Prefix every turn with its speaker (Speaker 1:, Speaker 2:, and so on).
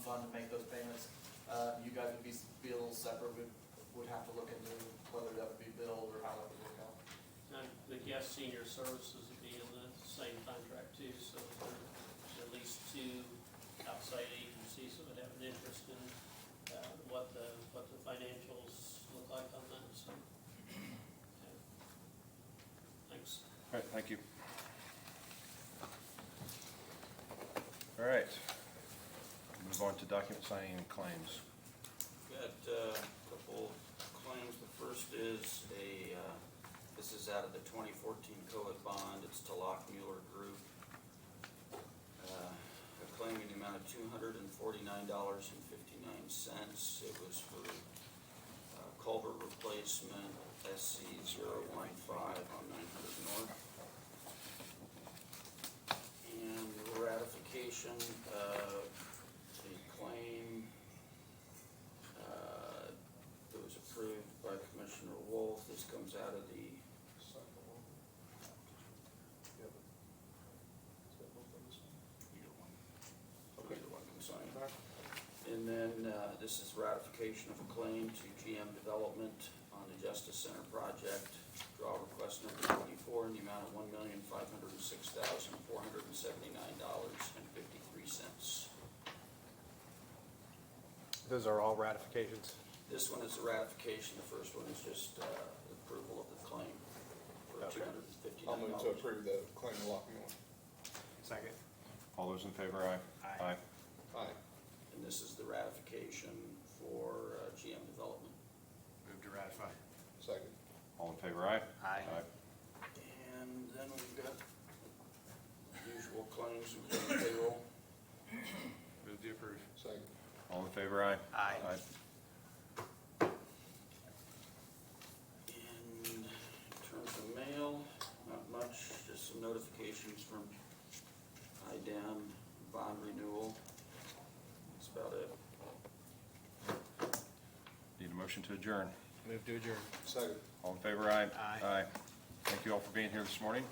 Speaker 1: fund to make those payments. Uh, you guys would be, be a little separate, we would have to look into whether that would be billed or how that would work out.
Speaker 2: And the guest senior services would be in the same contract too, so there's at least two outside agencies that would have an interest in, uh, what the, what the financials look like on that, so. okay. Thanks.
Speaker 3: All right, thank you. All right. Move on to document signing and claims.
Speaker 4: Got uh, a couple claims. The first is a, uh, this is out of the 2014 COVID bond. It's to Lock Mueller Group. Uh, A claim in the amount of $249.59. It was for uh, culvert replacement, SC 015 on 900 North. And ratification of the claim uh, It was approved by Commissioner Wolf. This comes out of the, either one can sign. And then uh, this is ratification of a claim to GM Development on the Justice Center project. Draw request number twenty-four in the amount of one million, five hundred and six thousand, four hundred and seventy-nine dollars and fifty-three cents.
Speaker 5: Those are all ratifications.
Speaker 4: This one is a ratification. The first one is just uh, approval of the claim for two
Speaker 5: Okay.
Speaker 4: hundred and fifty-nine
Speaker 6: I'll
Speaker 4: dollars.
Speaker 6: move to approve the claim of Lock Mueller.
Speaker 5: Second.
Speaker 3: All those in favor, aye?
Speaker 5: Aye.
Speaker 6: Aye.
Speaker 4: And this is the ratification for uh, GM Development.
Speaker 5: Move to ratify.
Speaker 6: Second.
Speaker 3: All in favor, aye?
Speaker 5: Aye.
Speaker 4: And then we've got usual claims and claim payroll.
Speaker 5: Move to approve.
Speaker 6: Second.
Speaker 3: All in favor, aye?
Speaker 5: Aye.
Speaker 4: And in terms of mail, not much, just some notifications from IDAM bond renewal. That's about it.
Speaker 3: Need a motion to adjourn.
Speaker 5: Move to adjourn.
Speaker 6: Second.
Speaker 3: All in favor, aye?
Speaker 5: Aye.
Speaker 3: Aye. Thank you all for being here this morning.